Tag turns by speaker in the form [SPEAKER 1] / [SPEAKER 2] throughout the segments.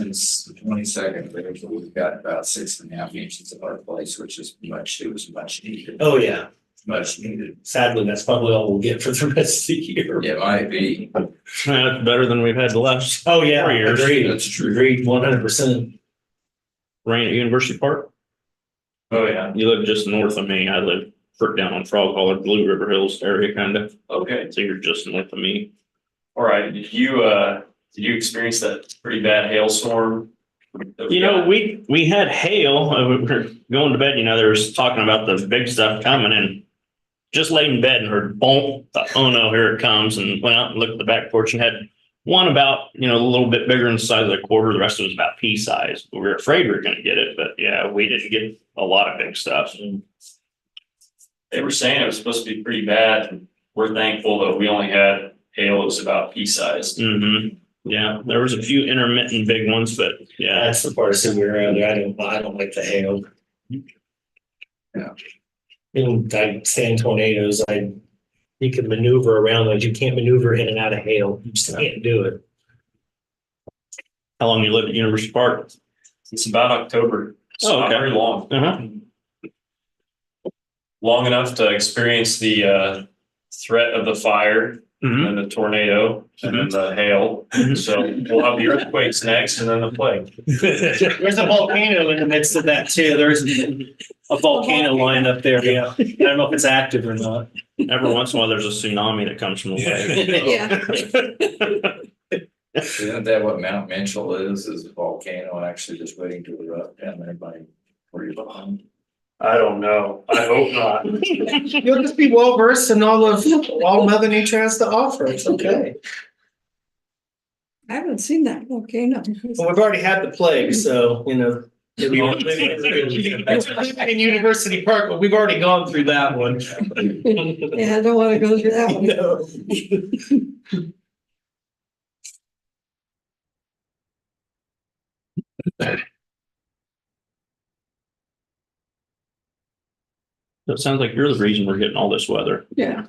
[SPEAKER 1] since the twenty second, we've got about six and a half inches of our place, which is much, it was much needed,
[SPEAKER 2] Oh, yeah,
[SPEAKER 1] much needed.
[SPEAKER 2] sadly, that's probably all we'll get for the rest of the year.
[SPEAKER 1] It might be,
[SPEAKER 3] Yeah, That's better than we've had the last
[SPEAKER 2] Oh, yeah,
[SPEAKER 3] Four years.
[SPEAKER 2] agreed,
[SPEAKER 1] that's true.
[SPEAKER 2] agreed, one hundred percent.
[SPEAKER 3] rain at University Park.
[SPEAKER 2] Oh, yeah.
[SPEAKER 3] You live just north of me. I live fr- down on Frog Holler, Blue River Hills area kind of.
[SPEAKER 4] Okay,
[SPEAKER 3] So you're just north of me.
[SPEAKER 4] all right. Did you, uh, did you experience that pretty bad hailstorm? that we
[SPEAKER 3] You know,
[SPEAKER 4] got?
[SPEAKER 3] we, we had hail, uh, we were going to bed, you know, there was talking about the big stuff coming and just laid in bed and heard boom, thought, oh no, here it comes and went out and looked at the back porch and had one about, you know, a little bit bigger in the size of a quarter. The rest of it was about pea size. We were afraid we were going to get it, but yeah, we didn't get a lot of big stuff.
[SPEAKER 4] They were saying it was supposed to be pretty bad. and We're thankful that we only had hail that was about pea sized.
[SPEAKER 3] hmm Yeah, there was a few intermittent big ones, but yeah.
[SPEAKER 2] That's the part that we're under, I don't, I don't like the hail.
[SPEAKER 1] Yeah.
[SPEAKER 2] And I sand tornadoes, I, you can maneuver around those, you can't maneuver in and out of hail, you just can't do it.
[SPEAKER 3] How long you lived at University Park?
[SPEAKER 4] It's about October. It's
[SPEAKER 3] Oh,
[SPEAKER 4] not
[SPEAKER 3] okay.
[SPEAKER 4] very long,
[SPEAKER 3] Uh-huh.
[SPEAKER 4] long enough to experience the, uh, threat of the fire and
[SPEAKER 3] hmm Mm-hmm.
[SPEAKER 4] then the tornado and then the hail.
[SPEAKER 3] Mhm.
[SPEAKER 4] So we'll have the earthquakes next and then the plague.
[SPEAKER 2] There's a volcano in the midst of that too, there's a volcano line up there, yeah, I don't know if it's active or not.
[SPEAKER 3] Every once in a while, there's a tsunami that comes from the lake.
[SPEAKER 5] Yeah.
[SPEAKER 1] Isn't that what Mount Mitchell is, is a volcano actually just waiting to erupt down there by where you're behind?
[SPEAKER 4] I don't know. I hope not.
[SPEAKER 2] You'll just be well versed in all of, all Mother Nature has to offer, it's okay.
[SPEAKER 5] I haven't seen that volcano.
[SPEAKER 2] Well, we've already had the plague, so, you know. It's In University Park, but we've already gone through that one.
[SPEAKER 5] Yeah, I don't want to go through that one.
[SPEAKER 2] No.
[SPEAKER 3] So it sounds like you're the reason we're getting all this weather.
[SPEAKER 5] Yeah.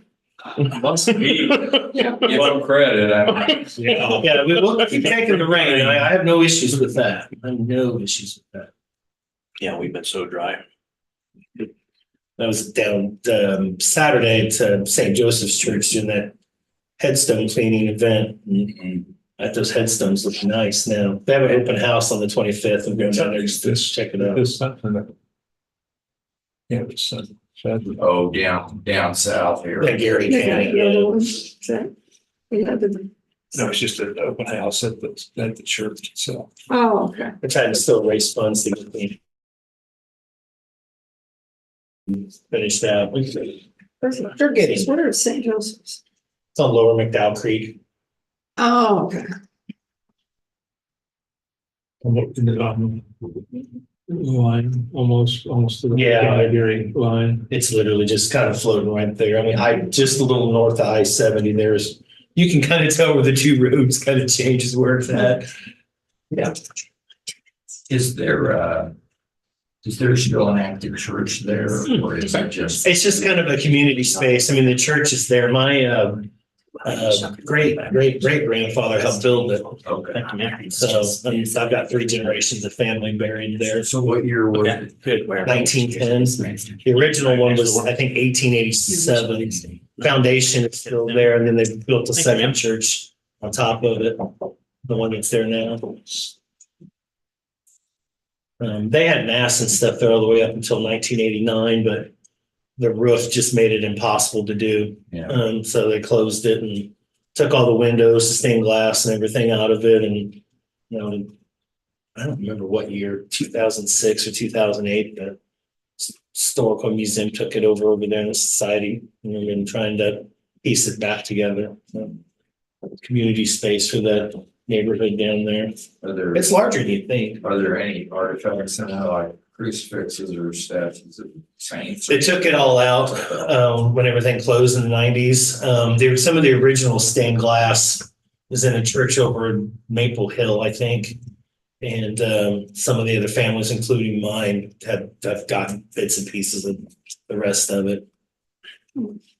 [SPEAKER 1] Must be,
[SPEAKER 5] Yeah.
[SPEAKER 1] give them credit, I mean,
[SPEAKER 2] Yeah, we will keep taking the rain, and I I have no issues with that, I have no issues with that.
[SPEAKER 3] Yeah, we've been so dry.
[SPEAKER 2] I was down um Saturday to St. Joseph's Church doing that headstone cleaning event. And
[SPEAKER 1] mm,
[SPEAKER 2] I thought those headstones look nice now. They have an open house on the twenty fifth. I'm going down there just to check it out.
[SPEAKER 6] There's something that. Yeah, it's something.
[SPEAKER 1] oh, down, down south here.
[SPEAKER 2] Like Gary
[SPEAKER 5] They got
[SPEAKER 2] County.
[SPEAKER 5] the
[SPEAKER 2] yeah.
[SPEAKER 5] other one. Is that- we had the-
[SPEAKER 6] No, it's just an open house at the, at the church itself.
[SPEAKER 5] Oh, okay.
[SPEAKER 2] They're trying to still raise funds to get clean. Finish that. We-
[SPEAKER 5] Where's it?
[SPEAKER 2] They're getting,
[SPEAKER 5] What are St. Joseph's?
[SPEAKER 2] it's on Lower McDowell Creek.
[SPEAKER 5] Oh, okay.
[SPEAKER 6] Almost in the bottom Line, almost, almost to the.
[SPEAKER 2] Yeah.
[SPEAKER 6] Iberian line.
[SPEAKER 2] It's literally just kind of floating right there. I mean, I, just a little north of I seventy, there's, you can kind of tell where the two roads kind of changes where it's at.
[SPEAKER 1] Is there, uh, is there still an active church there or is it just?
[SPEAKER 2] It's just kind of a community space. I mean, the church is there. My, um, uh, great, great, great grandfather Oh, helped build it.
[SPEAKER 1] Okay.
[SPEAKER 2] So, I mean, I've got three generations of family buried there.
[SPEAKER 1] So what year was it?
[SPEAKER 3] Good. Where?
[SPEAKER 2] Nineteen tens. The original one was, I think, eighteen eighty-seven. Foundation is still there, and then they built a second church on top of it, the one that's there now. Um, they had mass and stuff there all the way up until nineteen eighty-nine, but the roof just made it impossible to do.
[SPEAKER 1] Yeah.
[SPEAKER 2] Um, so they closed it and took all the windows, the stained glass and everything out of it and, you know, I don't remember what year, two thousand six or two thousand eight, the S- Historical Museum took it over over there in the society, and we've been trying to piece it back together. so. Community space for that neighborhood down there.
[SPEAKER 1] Are there,
[SPEAKER 2] It's larger than you think.
[SPEAKER 1] are there any artifacts in there like crucifixes or statues of saints?
[SPEAKER 2] They took it all out um, when everything closed in the nineties. Um, there some of the original stained glass was in a church over in Maple Hill, I think. And um, some of the other families, including mine, have, have gotten bits and pieces of the rest of it.